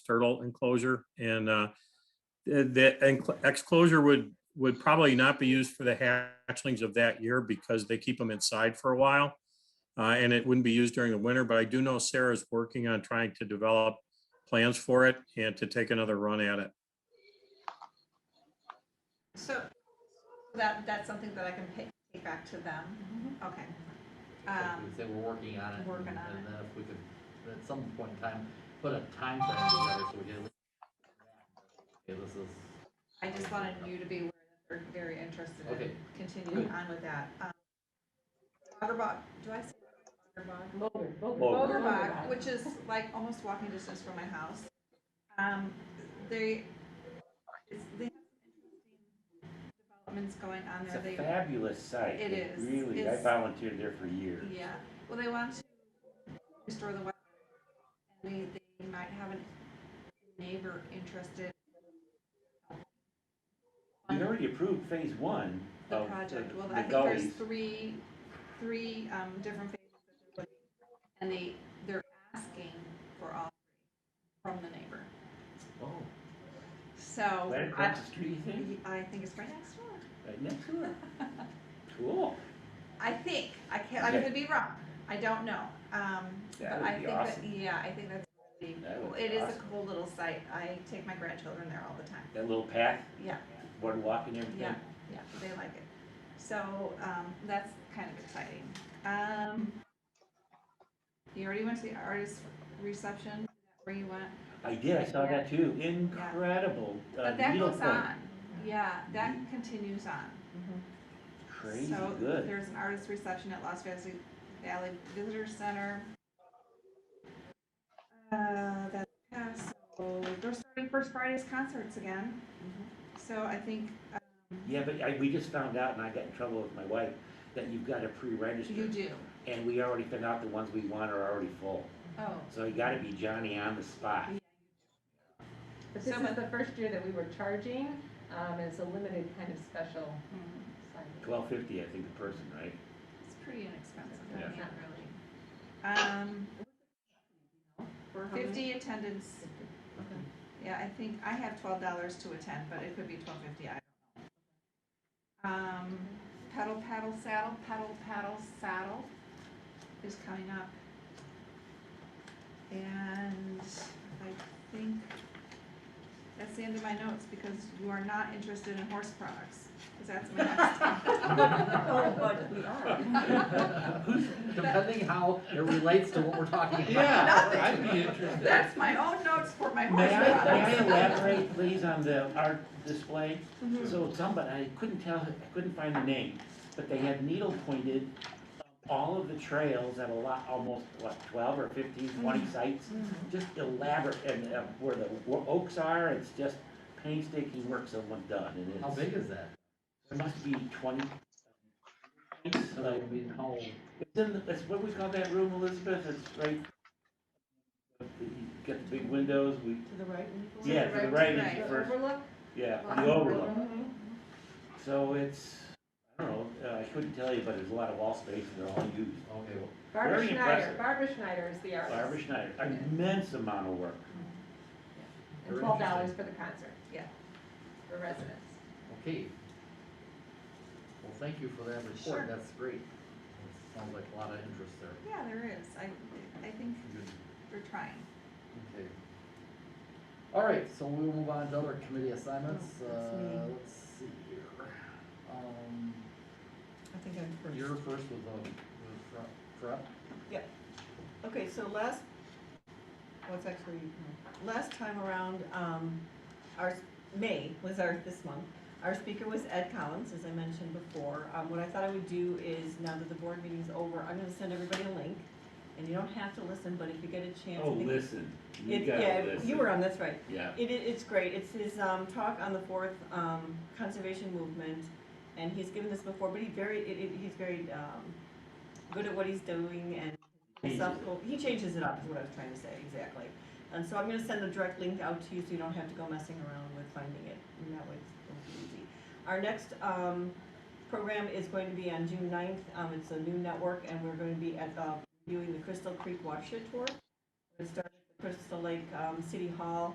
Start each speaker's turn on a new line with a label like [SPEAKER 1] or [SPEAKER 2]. [SPEAKER 1] turtle enclosure and uh, the- the enc- exclosure would, would probably not be used for the hatchlings of that year because they keep them inside for a while. Uh, And it wouldn't be used during the winter, but I do know Sarah's working on trying to develop plans for it and to take another run at it.
[SPEAKER 2] So that, that's something that I can pay, take back to them, okay. Um,
[SPEAKER 3] Say we're working on it.
[SPEAKER 2] working
[SPEAKER 3] and-
[SPEAKER 2] on
[SPEAKER 3] And then if we could, at some point in time, put a time frame together so we can. Okay, this is,
[SPEAKER 2] I just wanted you to be aware that they're very interested in
[SPEAKER 3] Okay.
[SPEAKER 2] continuing
[SPEAKER 3] Good.
[SPEAKER 2] on with that. Um, Waterbog, do I say Waterbog?
[SPEAKER 4] Boulder, Boulder.
[SPEAKER 5] Oh,
[SPEAKER 3] Boulder.
[SPEAKER 2] Bogerbach, which is like almost walking distance from my house. Um, they, it's, they have some interesting developments going on
[SPEAKER 5] It's
[SPEAKER 2] there.
[SPEAKER 5] a
[SPEAKER 2] They
[SPEAKER 5] fabulous site.
[SPEAKER 2] It is.
[SPEAKER 5] Really, I
[SPEAKER 2] It's-
[SPEAKER 5] volunteered there for years.
[SPEAKER 2] Yeah, well, they want to restore the wetland. and They, they might have a neighbor interested.
[SPEAKER 5] We already approved phase one
[SPEAKER 2] The
[SPEAKER 5] of Oh, the
[SPEAKER 2] project, well,
[SPEAKER 5] the
[SPEAKER 2] I think there's
[SPEAKER 5] gullies.
[SPEAKER 2] three, three, um, different phases that they're looking, and they, they're asking for all three from the neighbor.
[SPEAKER 3] oh,
[SPEAKER 2] So,
[SPEAKER 5] Right
[SPEAKER 2] I,
[SPEAKER 5] across the street, you think?
[SPEAKER 2] I think it's right next door.
[SPEAKER 5] Right next to it. Cool.
[SPEAKER 2] I think, I can't, I
[SPEAKER 5] Okay.
[SPEAKER 2] could be wrong, I don't know, um, but
[SPEAKER 5] That would
[SPEAKER 2] I
[SPEAKER 5] be
[SPEAKER 2] think that, e-
[SPEAKER 5] awesome.
[SPEAKER 2] yeah, I think that's really
[SPEAKER 5] That would
[SPEAKER 2] cool.
[SPEAKER 5] be
[SPEAKER 2] It is a
[SPEAKER 5] awesome.
[SPEAKER 2] cool little site, I take my grandchildren there all the time,
[SPEAKER 5] That little path,
[SPEAKER 2] yeah,
[SPEAKER 5] boardwalk and
[SPEAKER 2] yeah,
[SPEAKER 5] everything.
[SPEAKER 2] yeah, they like it. So, um, that's kind of exciting, um. You already went to the artist reception, where you went,
[SPEAKER 5] I did, I saw that too. Incredible. uh,
[SPEAKER 2] but that
[SPEAKER 5] needle
[SPEAKER 2] goes
[SPEAKER 5] point.
[SPEAKER 2] on, yeah, that continues on.
[SPEAKER 5] Crazy
[SPEAKER 2] So
[SPEAKER 5] good.
[SPEAKER 2] There's an artist reception at Las Vegas Valley Visitor Center. Uh, that, yeah, so they're starting First Friday's concerts again.
[SPEAKER 5] Mm-hmm.
[SPEAKER 2] So I think, uh,
[SPEAKER 5] Yeah, but I, we just found out and I got in trouble with my wife that you've got to pre-register.
[SPEAKER 2] you do,
[SPEAKER 5] And we already found out the ones we want are already full.
[SPEAKER 2] oh,
[SPEAKER 5] So you gotta be Johnny on the spot.
[SPEAKER 4] But this
[SPEAKER 2] So much-
[SPEAKER 4] is the first year that we were charging, um, and it's a limited kind of special
[SPEAKER 2] mm,
[SPEAKER 4] sign.
[SPEAKER 5] Twelve fifty, I think, a person, right?
[SPEAKER 2] it's pretty inexpensive,
[SPEAKER 4] Yeah.
[SPEAKER 2] not really. Um,
[SPEAKER 4] For how many?
[SPEAKER 2] fifty attendance,
[SPEAKER 4] Okay.
[SPEAKER 2] yeah, I think, I have twelve dollars to attend, but it could be twelve fifty, I don't know. Um, pedal paddle saddle, pedal paddle saddle is coming up. And I think that's the end of my notes because you are not interested in horse products, because that's my
[SPEAKER 4] Oh,
[SPEAKER 2] next.
[SPEAKER 4] but we are.
[SPEAKER 3] depending how it relates to what we're talking about.
[SPEAKER 5] Yeah, I'd be interested.
[SPEAKER 2] That's my own notes for my
[SPEAKER 5] May
[SPEAKER 2] horse
[SPEAKER 5] I, may I
[SPEAKER 2] products.
[SPEAKER 5] elaborate, please, on the art display? So somebody, I couldn't tell, I couldn't find the name, but they had needle pointed all of the trails at a lot, almost, what, twelve or 15, 20 sites? Just elaborate, and uh, where the wo- oaks are, it's just painstaking work someone's done, and
[SPEAKER 3] How
[SPEAKER 5] it's,
[SPEAKER 3] big is that?
[SPEAKER 5] there must be twenty.
[SPEAKER 3] So that would be how,
[SPEAKER 5] It's in, the- it's, what do we call that room, Elizabeth, it's right, you got the big windows, we,
[SPEAKER 6] To the right?
[SPEAKER 5] yeah, to the
[SPEAKER 2] right,
[SPEAKER 5] right
[SPEAKER 2] to
[SPEAKER 5] is the
[SPEAKER 2] right.
[SPEAKER 5] first,
[SPEAKER 4] Overlook? Mm-hmm.
[SPEAKER 5] yeah,
[SPEAKER 4] Lots of
[SPEAKER 5] the overlook.
[SPEAKER 4] room.
[SPEAKER 5] So it's, I don't know, uh, I couldn't tell you, but there's a lot of wall space and they're all used.
[SPEAKER 3] okay, well,
[SPEAKER 4] Barbara
[SPEAKER 5] Very
[SPEAKER 4] Schneider,
[SPEAKER 5] impressive.
[SPEAKER 4] Barbara Schneider is the artist.
[SPEAKER 5] Barbara Schneider, immense amount of work.
[SPEAKER 4] And
[SPEAKER 3] Very
[SPEAKER 4] twelve dollars
[SPEAKER 3] interesting.
[SPEAKER 4] for the concert.
[SPEAKER 2] Yeah.
[SPEAKER 4] For residents.
[SPEAKER 3] okay. Well, thank you for that
[SPEAKER 2] Sure.
[SPEAKER 3] report, that's great. It Sounds like a lot of interest there.
[SPEAKER 2] Yeah, there is, I, I think
[SPEAKER 3] Good.
[SPEAKER 2] we're trying.
[SPEAKER 3] Okay. All right, so we'll move on to other committee assignments,
[SPEAKER 6] Oh, that's
[SPEAKER 3] uh,
[SPEAKER 6] me.
[SPEAKER 3] let's see here. Um,
[SPEAKER 6] I think I'm first.
[SPEAKER 3] you're first with, uh, with prep, prep,
[SPEAKER 6] Okay, so last, well, it's actually, no. last time around, um, our, May was our, this month. Our speaker was Ed Collins, as I mentioned before. Um, what I thought I would do is, now that the board meeting's over, I'm gonna send everybody a link. And you don't have to listen, but if you get a chance. I
[SPEAKER 5] Oh,
[SPEAKER 6] think-
[SPEAKER 5] listen, you
[SPEAKER 6] It-
[SPEAKER 5] gotta
[SPEAKER 6] Yeah,
[SPEAKER 5] listen.
[SPEAKER 6] you were on, that's right.
[SPEAKER 5] Yeah,
[SPEAKER 6] It, it, it's great. It's his, um, talk on the fourth, um, conservation movement. And he's given this before, but he very, it, it, he's very, um, good at what he's doing and
[SPEAKER 5] Changes
[SPEAKER 6] philosophical. He changes it up, is what I was trying to say, exactly. And so I'm gonna send a direct link out to you so you don't have to go messing around with finding it. And that way it's it'll be easy. Our next, um, program is going to be on June 9th. Um, it's a new network and we're going to be at, uh, viewing the Crystal Creek Watershed Tour. It starts at Crystal Lake, um, City Hall